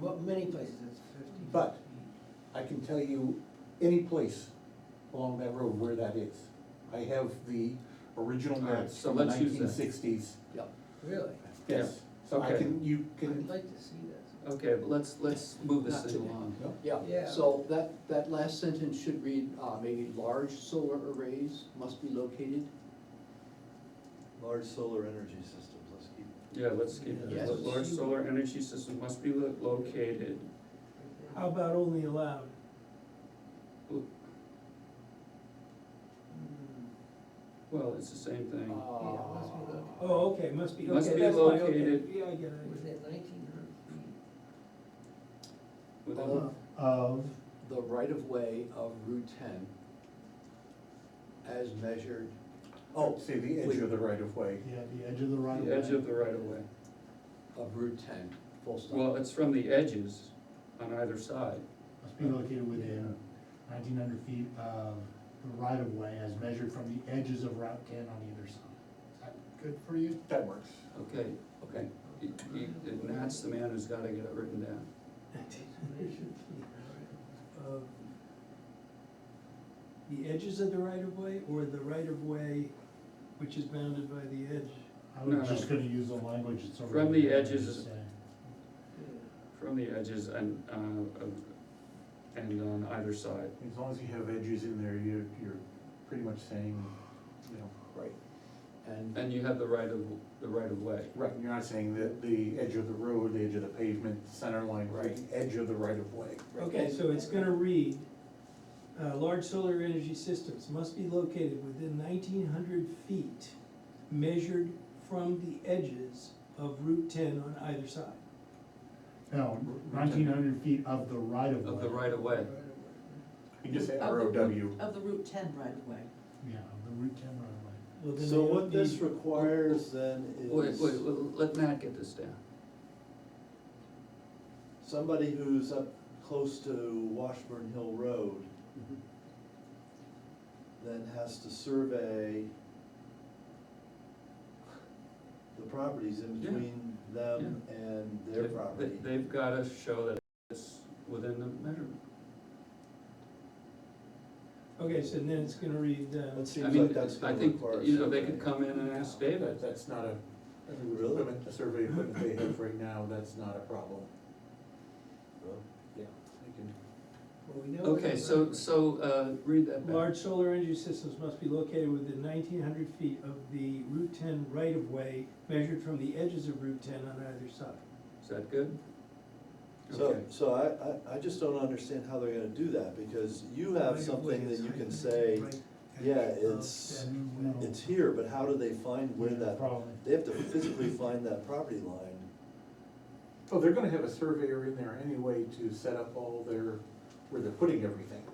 Well, many places it's fifteen. But I can tell you any place along that road where that is. I have the original All right, maps so from the let's use that. nineteen sixties. Yep. Really? Yes, so I Okay. can, you I'd can, like to see that. Okay, but let's, let's move this Not thing today. along. no, Yeah, Yeah. so that, that last sentence should read, uh, maybe large solar arrays must be located. Large solar energy systems, let's keep. Yeah, let's keep Yes. it. Large solar energy system must be lo- located. How about only allowed? Well, it's the same Uh, thing. must be located. Oh, okay, must be, Must okay, be that's fine, okay, located. yeah, I get Hmm, Was it. it nineteen hundred feet? Within- Of of, the right of way of Route ten as measured, oh, oh, say the edge wait. of the right of way. yeah, the edge of the right of way. The edge of the right of way. of Route ten, full stop. Well, it's from the edges on either side. Must be located within nineteen hundred feet of the right of way as measured from the edges of Route ten on either side. Is that Good for you? That works. Okay, okay. He- he- and Matt's the man who's gotta get it written down. Of Um, The edges of the right of way or the right of way which is bounded by the edge? I No, was no. just gonna use the language that's over. From the there, edges- just say. From the edges and, uh, of- and on either side. As long as you have edges in there, you're, you're pretty much saying, you know. Right. And, And you have the right of, the right of way. Right, you're not saying that the edge of the road, the edge of the pavement, center line, right, edge of the right of way. Okay, so it's gonna read, uh, large solar energy systems must be located within nineteen hundred feet measured from the edges of Route ten on either side. No, nineteen hundred feet of the right of way. Of the right of way. You just say Of the R O W. Route- Of the Route ten right of way. Yeah, of the Route ten right of way. Well, then So they what don't this need- requires then Wait, wait, is wait, let Matt get this down. somebody who's up close to Washburn Hill Road Mhm. then has to survey the properties in Yeah. between them and their They- they- property. They've gotta show that it's within the measurement. Okay, so then it's gonna read, uh, It I seems like mean, that's I gonna think, require. you know, they could survey. come in and ask David, That, that's not a, Really? equipment, the survey equipment they have right now, that's not a problem. Well, Yeah. They can Well, we know it's okay, a so, right- so, uh, read that back. Large solar energy systems must be located within nineteen hundred feet of the Route ten right-of-way, measured from the edges of Route ten on either side. Is that good? So, Okay. so I, I, I just don't understand how they're gonna do that, because you have something that you can say, yeah, it's, No. it's here, but how do they find where Yeah, that, Probably. they have to physically find that property line. Oh, they're gonna have a surveyor in there anyway to set up all their, where they're putting everything.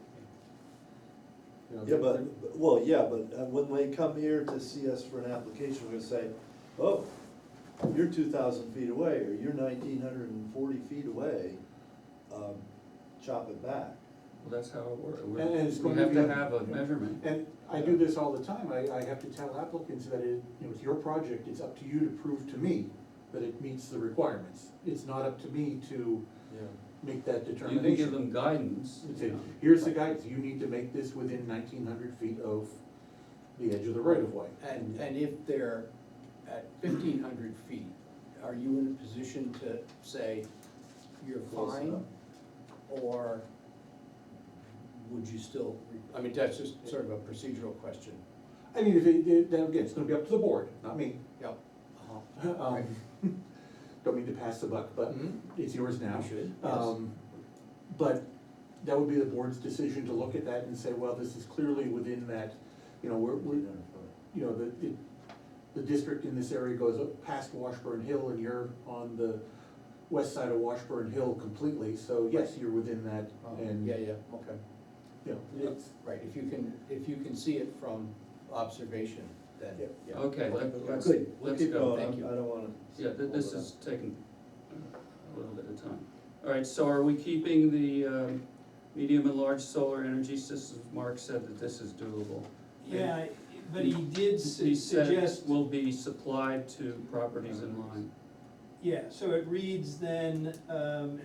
You know, Yeah, they're- but, but- well, yeah, but uh, when they come here to see us for an application, we're gonna say, oh, you're two thousand feet away, or you're nineteen hundred and forty feet away, um, chop it back. Well, that's how it works, we And it's we going to have to be- have a measurement. And I do this all the time, I, I have to tell applicants that it, you know, it's your project, it's up to you to prove to me that it meets the requirements. It's not up to me to Yeah. make that You determination. can give them guidance, It's you a- know. Here's the guidance, you need to make this within nineteen hundred feet of the edge of the right of way. And, and if they're at fifteen hundred feet, are you in a position to say you're Close enough. fine? Or would you still, I mean, that's just sort of a procedural question. I mean, if it- it, then again, it's gonna be up to the board, not me. Yep. Oh. Um, Don't mean to pass the buck, but Mhm. it's yours now. You should, yes. Um, But that would be the board's decision to look at that and say, well, this is clearly within that, you know, we're, we're, you know, the, the, the district in this area goes up past Washburn Hill and you're on the west side of Washburn Hill completely, so yes, you're within that Oh, Uh-huh. and, Yeah, you yeah, okay. know, it's, Right, if you can, if you can see it from observation, then, Yep. yeah. Okay, let- let's, Good, we'll let's keep go, going, thank I you. don't wanna. Yeah, th- this hold it up. is taking a little bit of time. All right, so are we keeping the, um, medium and large solar energy systems? Mark said that this is doable. Yeah, but he did su- He said suggest, will be supplied to properties in line. yeah, so it reads then, um,